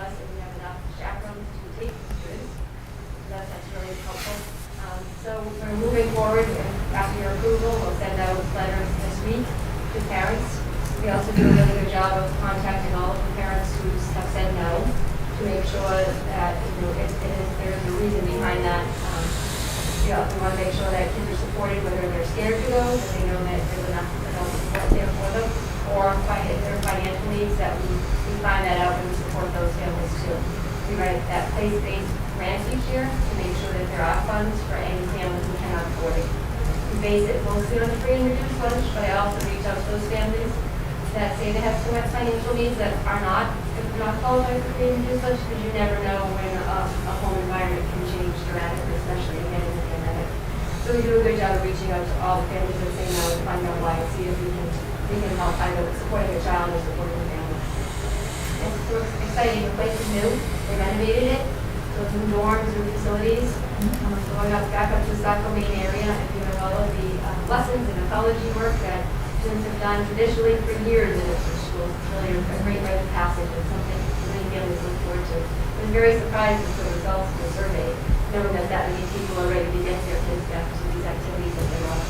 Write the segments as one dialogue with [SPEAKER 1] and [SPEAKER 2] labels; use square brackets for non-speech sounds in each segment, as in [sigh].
[SPEAKER 1] Um, good job of contacting all of the parents who have said no to make sure that, you know, it it is, there is a reason behind that. Um, You know, we want to make sure that kids are supported, whether they're scared to go, that they know that there's enough adult support there for them, or fi- if there are financial needs, that we, we find that out and we support those families too. We write that place-based grant each year to make sure that there are funds for any family who cannot afford it we base it mostly on the free and reduced lunch, but I also reach out to those families that say they have so much financial needs that are not, if they're not qualified for free and reduced lunch, because you never know when a, a home environment can change dramatically, especially again in the pandemic. So we do a good job of reaching out to all the families that say no, to find out why, and see if we can, we can help find out what's supporting a child or supporting a family. It's so exciting, the place is new, they renovated it, so it's new dorms, new facilities. Um, so Going up, back up to the Saco Main area, and doing all of the uh, lessons and ecology work that students have done traditionally for years in district schools. It's really a great rite of passage and something many families look forward to. I was very surprised with the results of the survey, knowing that that many people are ready to get their kids back to these activities that they love.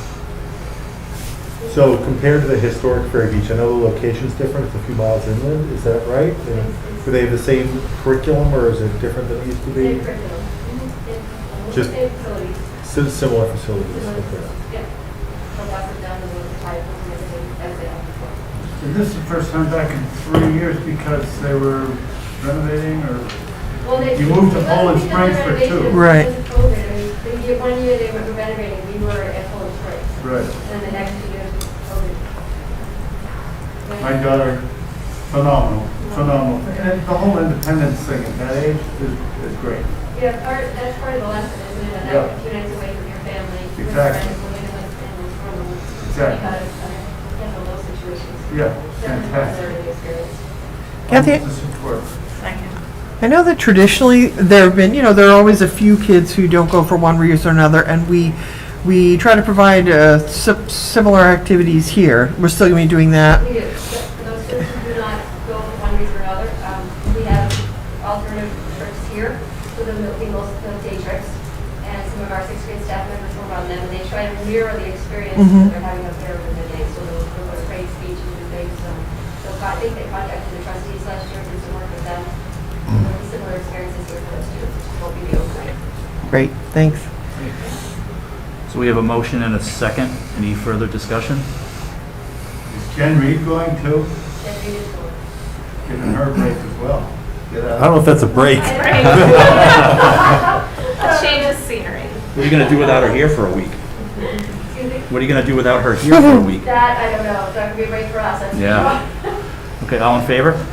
[SPEAKER 2] So compared to the historic Fair Beach, I know the location's different, it's a few miles inland, is that right? And Do they have the same curriculum or is it different than it used to
[SPEAKER 1] Same
[SPEAKER 2] be?
[SPEAKER 1] curriculum. Mhm. Yeah.
[SPEAKER 2] Just-
[SPEAKER 1] Same facilities.
[SPEAKER 2] Sim- Similar facilities. okay.
[SPEAKER 1] Yeah. So lots of done with the type of living as they have before.
[SPEAKER 3] And This is the first time back in three years because they were renovating or,
[SPEAKER 1] Well, they-
[SPEAKER 3] You moved to
[SPEAKER 1] it wasn't
[SPEAKER 3] Poland
[SPEAKER 1] because of
[SPEAKER 3] Springs for
[SPEAKER 1] renovation,
[SPEAKER 3] two.
[SPEAKER 1] it was
[SPEAKER 4] Right.
[SPEAKER 1] because of COVID. I mean, the year- one year they were renovating, we were at Poland Springs,
[SPEAKER 3] right.
[SPEAKER 1] and then the next two years was COVID. But-
[SPEAKER 3] My daughter, phenomenal, phenomenal. And the whole independence thing at that age is, is great.
[SPEAKER 1] Yeah, part, that's part of the lesson, isn't it?
[SPEAKER 3] Yeah.
[SPEAKER 1] That few nights away from your family. with your
[SPEAKER 3] Exactly.
[SPEAKER 1] friends, living in those- in those rooms,
[SPEAKER 3] Exactly.
[SPEAKER 1] Because, uh, handle those situations.
[SPEAKER 3] Yeah,
[SPEAKER 1] Definitely
[SPEAKER 3] fantastic.
[SPEAKER 1] deserving experience.
[SPEAKER 4] Kathy-
[SPEAKER 3] The support.
[SPEAKER 4] I know that traditionally there have been, you know, there are always a few kids who don't go for one reason or another, and we we try to provide uh, si- similar activities here. We're still going to be doing that.
[SPEAKER 1] We do, but for those students who do not go for one reason or another, um, we have alternative trips here for the meals, the day trips. And some of our sixth grade staff members will run them, and they try to mirror the experience that
[SPEAKER 4] Mhm.
[SPEAKER 5] Mm-hmm.
[SPEAKER 1] they're having up there in the day. So they'll they'll go to great speeches and things, so, so I think they contacted the trustees last year, did some work with them.
[SPEAKER 5] Mm-hmm.
[SPEAKER 1] Similar experiences here for those students, which will be the overnight.
[SPEAKER 4] Great, thanks.
[SPEAKER 5] So we have a motion and a second. Any further discussion?
[SPEAKER 3] Is Jen Reed going too?
[SPEAKER 1] Then we just go.
[SPEAKER 3] Giving her a break as well. Get
[SPEAKER 2] I don't
[SPEAKER 3] out.
[SPEAKER 2] know if that's a break.
[SPEAKER 6] A change of scenery.
[SPEAKER 5] What are you going to do without her here for a week?
[SPEAKER 1] Excuse me?
[SPEAKER 5] What are you going to do without her here for a
[SPEAKER 1] [laughs]
[SPEAKER 5] week?
[SPEAKER 1] That, I don't know, that would be great for us. I'm
[SPEAKER 5] Yeah.
[SPEAKER 1] [laughs]
[SPEAKER 5] Okay, all in favor?
[SPEAKER 1] sure.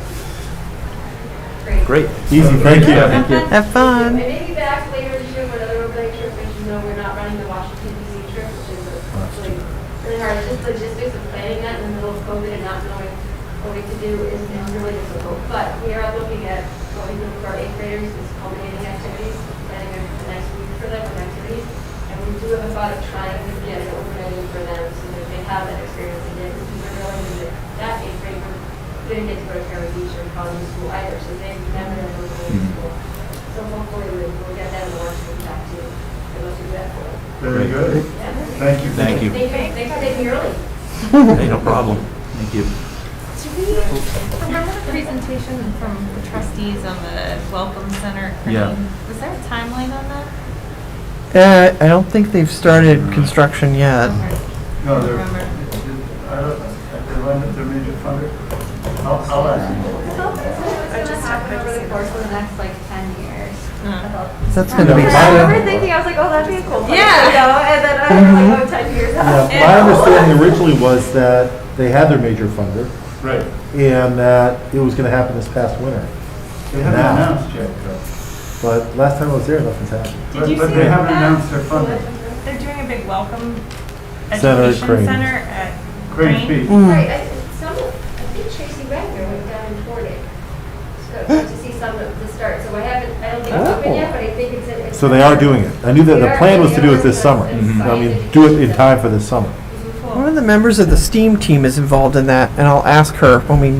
[SPEAKER 5] Great.
[SPEAKER 2] Easy, thank you.
[SPEAKER 5] Yeah, thank you.
[SPEAKER 4] Have
[SPEAKER 1] I
[SPEAKER 4] fun.
[SPEAKER 1] may be back later this year for another overnight trip, but you know, we're not running the Washington DC trip, which is actually really hard. Just logistics of planning that in the middle of COVID and not knowing what we could do is is really difficult. But we are looking at what we do for our eighth graders, is culminating activities, planning a a nice week for them with activities. And we do have a thought of trying to get an overnight for them so that they have that experience again. Because we're realizing that that eighth grade group didn't get to go to Perry Beach or College School either, so they remember that those days of school. So hopefully we- we'll get them to watch them back too. And we'll do that for them.
[SPEAKER 3] Very good.
[SPEAKER 1] Yeah.
[SPEAKER 3] Thank you.
[SPEAKER 5] Thank you.
[SPEAKER 1] Thank you, thanks for taking me early.
[SPEAKER 5] Hey, no problem. Thank you.
[SPEAKER 6] Do we remember the presentation from the trustees on the Welcome Center? at Crane?
[SPEAKER 5] Yeah.
[SPEAKER 6] Was there a timeline on that?
[SPEAKER 4] Uh, I don't think they've started construction yet.
[SPEAKER 3] No, they're,
[SPEAKER 6] Remember.
[SPEAKER 3] I don't, they run, they're major funder. I'll, I'll ask.
[SPEAKER 1] Oh,
[SPEAKER 6] I just happened over the course of the next like 10 years.
[SPEAKER 4] That's going to be.
[SPEAKER 2] Yeah.
[SPEAKER 1] I remember thinking, I was like, oh, that'd be a cool place.
[SPEAKER 6] Yeah.
[SPEAKER 1] You know, and then I was like, oh, 10 years
[SPEAKER 2] Yeah,
[SPEAKER 1] out.
[SPEAKER 2] My understanding originally was that they had their major funder
[SPEAKER 3] Right.
[SPEAKER 2] and that it was going to happen this past winter.
[SPEAKER 3] They haven't
[SPEAKER 2] Now.
[SPEAKER 3] announced yet though.
[SPEAKER 2] But last time I was there, nothing's happened.
[SPEAKER 6] Did
[SPEAKER 3] But-
[SPEAKER 6] you
[SPEAKER 3] But
[SPEAKER 6] see
[SPEAKER 3] they haven't
[SPEAKER 6] that?
[SPEAKER 3] announced their funding.
[SPEAKER 6] uh, They're doing a big welcome
[SPEAKER 2] Center at
[SPEAKER 6] education
[SPEAKER 2] Crane.
[SPEAKER 6] center at
[SPEAKER 3] Crane Beach.
[SPEAKER 4] Hmm.
[SPEAKER 1] Right, I, some, of- I think Tracy Wagner went down and toured it. So I got to see some of the start, so I haven't, I don't think it's open yet, but I think it's. in- it's-
[SPEAKER 2] Oh. So they are doing it. I knew that the plan was to do it this summer. I mean, do it in time for this summer.
[SPEAKER 6] Cool.
[SPEAKER 4] One of the members of the STEAM team is involved in that, and I'll ask her when we